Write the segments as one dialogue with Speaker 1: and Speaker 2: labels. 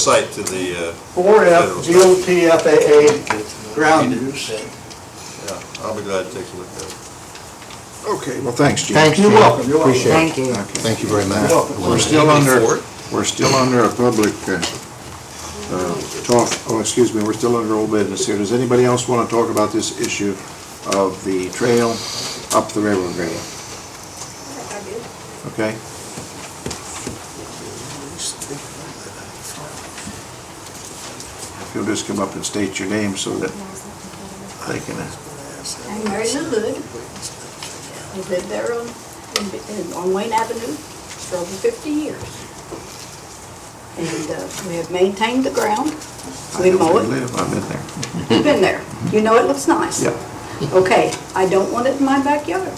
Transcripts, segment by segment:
Speaker 1: site to the, uh,
Speaker 2: 4F GOT FAA ground use.
Speaker 1: yeah, I'll be glad to take a look at it.
Speaker 3: Okay, well, thanks, Jim.
Speaker 4: Thanks,
Speaker 2: You're
Speaker 4: Jim.
Speaker 2: welcome, you're welcome.
Speaker 4: Appreciate it.
Speaker 5: Thank you.
Speaker 4: Thank you very much.
Speaker 3: We're still under, we're still under a public, uh, uh, talk, oh, excuse me, we're still under old business here. Does anybody else want to talk about this issue of the trail up the railroad grade? Okay? If you'll just come up and state your name so that they can, uh,
Speaker 6: I'm Mary Lou Hood. I live there on, in- on Wayne Avenue for over 50 years. And uh, we have maintained the ground.
Speaker 3: I
Speaker 6: We
Speaker 3: know
Speaker 6: mow
Speaker 3: where you
Speaker 6: it.
Speaker 3: live, I've been there.
Speaker 6: You've been there. You know it looks nice.
Speaker 3: Yeah.
Speaker 6: Okay, I don't want it in my backyard.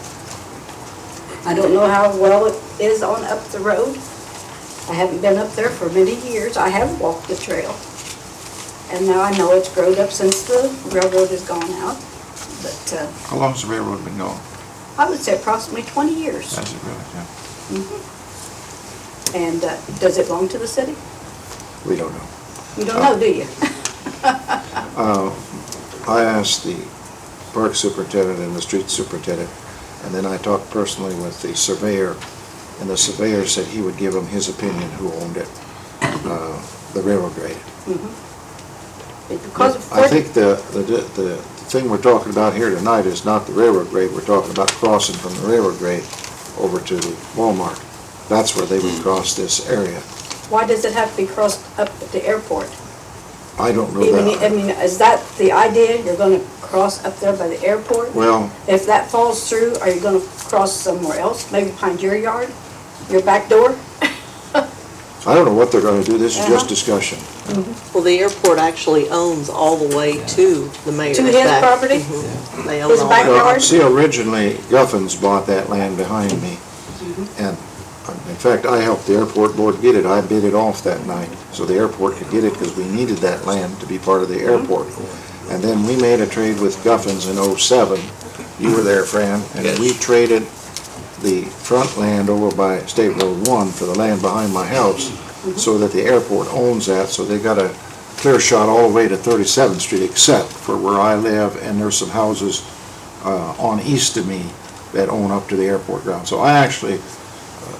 Speaker 6: I don't know how well it is on up the road. I haven't been up there for many years. I have walked the trail. And now I know it's grown up since the railroad has gone out. But uh,
Speaker 3: How long's the railroad been going?
Speaker 6: I would say approximately 20 years.
Speaker 3: Has it really, yeah?
Speaker 6: And uh, does it belong to the city?
Speaker 3: We don't know.
Speaker 6: You don't know, do you?
Speaker 3: Uh, I asked the park superintendent and the street superintendent, and then I talked personally with the surveyor, and the surveyor said he would give him his opinion who owned it, uh, the railroad grade.
Speaker 6: Because of
Speaker 3: I
Speaker 6: 40,
Speaker 3: think the, the, the thing we're talking about here tonight is not the railroad grade, we're talking about crossing from the railroad grade over to Walmart. That's where they would cross this area.
Speaker 6: why does it have to be crossed up at the airport?
Speaker 3: I don't know
Speaker 6: Even, I
Speaker 3: that.
Speaker 6: mean, is that the idea, you're gonna cross up there by the airport?
Speaker 3: Well,
Speaker 6: If that falls through, are you gonna cross somewhere else, maybe behind your yard, your back door?
Speaker 3: I don't know what they're gonna do, this is just
Speaker 6: Uh-huh.
Speaker 3: discussion.
Speaker 7: Well, the airport actually owns all the way to the mayor's
Speaker 6: To
Speaker 7: back.
Speaker 6: his property?
Speaker 7: Mhm. They own
Speaker 6: His
Speaker 7: all
Speaker 6: back
Speaker 7: that.
Speaker 3: Well,
Speaker 6: Howard?
Speaker 3: see, originally Guffins bought that land behind me, and um, in fact, I helped the airport board get it. I bid it off that night, so the airport could get it, because we needed that land to be part of the airport. And then we made a trade with Guffins in '07. You were there, Fran, and we traded the front land over by State Road One for the land behind my house, so that the airport owns that, so they got a clear shot all the way to 37th Street, except for where I live, and there's some houses uh, on east of me that own up to the airport ground. So I actually uh,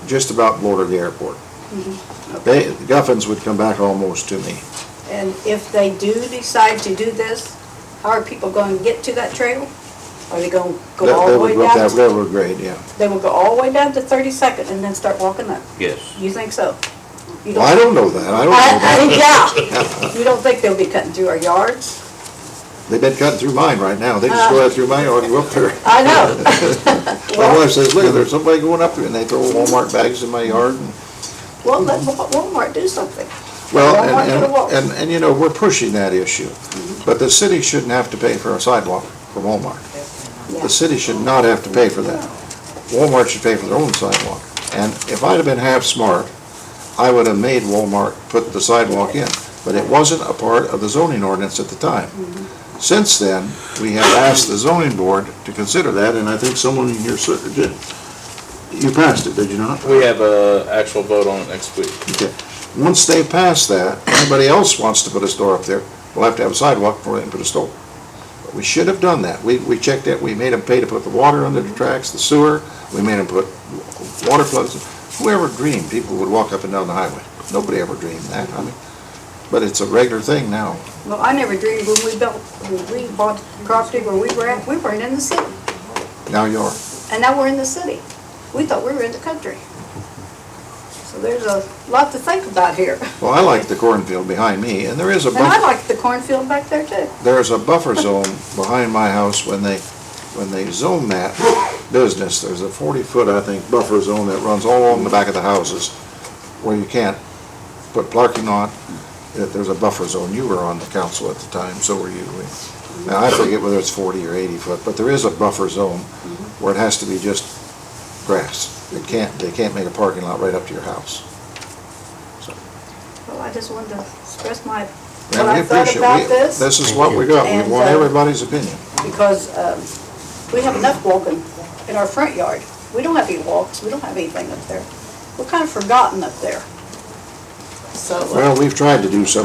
Speaker 3: just about border the airport.
Speaker 6: Mm-hmm.
Speaker 3: They, the Guffins would come back almost to me.
Speaker 6: And if they do decide to do this, how are people gonna get to that trail? Are they gonna
Speaker 3: They-
Speaker 6: go all
Speaker 3: they
Speaker 6: the
Speaker 3: would
Speaker 6: way
Speaker 3: go up
Speaker 6: down?
Speaker 3: That railroad grade, yeah.
Speaker 6: They will go all the way down to 32nd and then start walking up?
Speaker 8: Yes.
Speaker 6: You think so? You
Speaker 3: Well, I don't know that, I don't know that.
Speaker 6: I- I- Yeah. You don't think they'll be cutting through our yards?
Speaker 3: They've been cutting through mine right now, they just go out through mine, or go up there.
Speaker 6: I know.
Speaker 3: My wife says, look, there's somebody going up there, and they throw Walmart bags in my yard. and-
Speaker 6: Well, let Wa- Walmart do something.
Speaker 3: Well,
Speaker 6: Walmart to the
Speaker 3: and-
Speaker 6: wall. Mm-hmm.
Speaker 3: and, and, and you know, we're pushing that issue, but the city shouldn't have to pay for a sidewalk for Walmart.
Speaker 6: Yeah.
Speaker 3: The city should not have to pay for that. Walmart should pay for their own sidewalk. And if I'd have been half smart, I would have made Walmart put the sidewalk in. But it wasn't a part of the zoning ordinance at the time. Since then, we have asked the zoning board to consider that, and I think someone in here cer- did. You passed it, did you not?
Speaker 8: We have a actual vote on it next week.
Speaker 3: Okay. Once they pass that, anybody else wants to put a store up there, we'll have to have a sidewalk before they can put a store. But we should have done that. We, we checked it, we made them pay to put the water under the tracks, the sewer, we made them put water plugs. Whoever dreamed people would walk up and down the highway? Nobody ever dreamed that, I mean, but it's a regular thing now.
Speaker 6: Well, I never dreamed when we built, when we bought property where we were at, we weren't in the city.
Speaker 3: Now you are.
Speaker 6: And now we're in the city. We thought we were in the country. So there's a lot to think about here.
Speaker 3: Well, I like the cornfield behind me, and there is a
Speaker 6: And I
Speaker 3: bunch.
Speaker 6: like the cornfield back there too.
Speaker 3: there's a buffer zone behind my house when they, when they zone that business, there's a forty-foot, I think, buffer zone that runs all along the back of the houses where you can't put parking on, that there's a buffer zone. You were on the council at the time, so were you. We- Now, I forget whether it's forty or eighty foot, but there is a buffer zone where it has to be just grass. It can't, they can't make a parking lot right up to your house.
Speaker 6: Well, I just wanted to express my, what
Speaker 3: And we
Speaker 6: I thought
Speaker 3: appreciate
Speaker 6: about
Speaker 3: we-
Speaker 6: this.
Speaker 3: This is what we got. We
Speaker 6: And,
Speaker 3: want
Speaker 6: uh,
Speaker 3: everybody's opinion.
Speaker 6: because um, we have enough walking in our front yard. We don't have any walks, we don't have anything up there. We're kind of forgotten up there.
Speaker 4: so.
Speaker 3: Well, we've tried to do something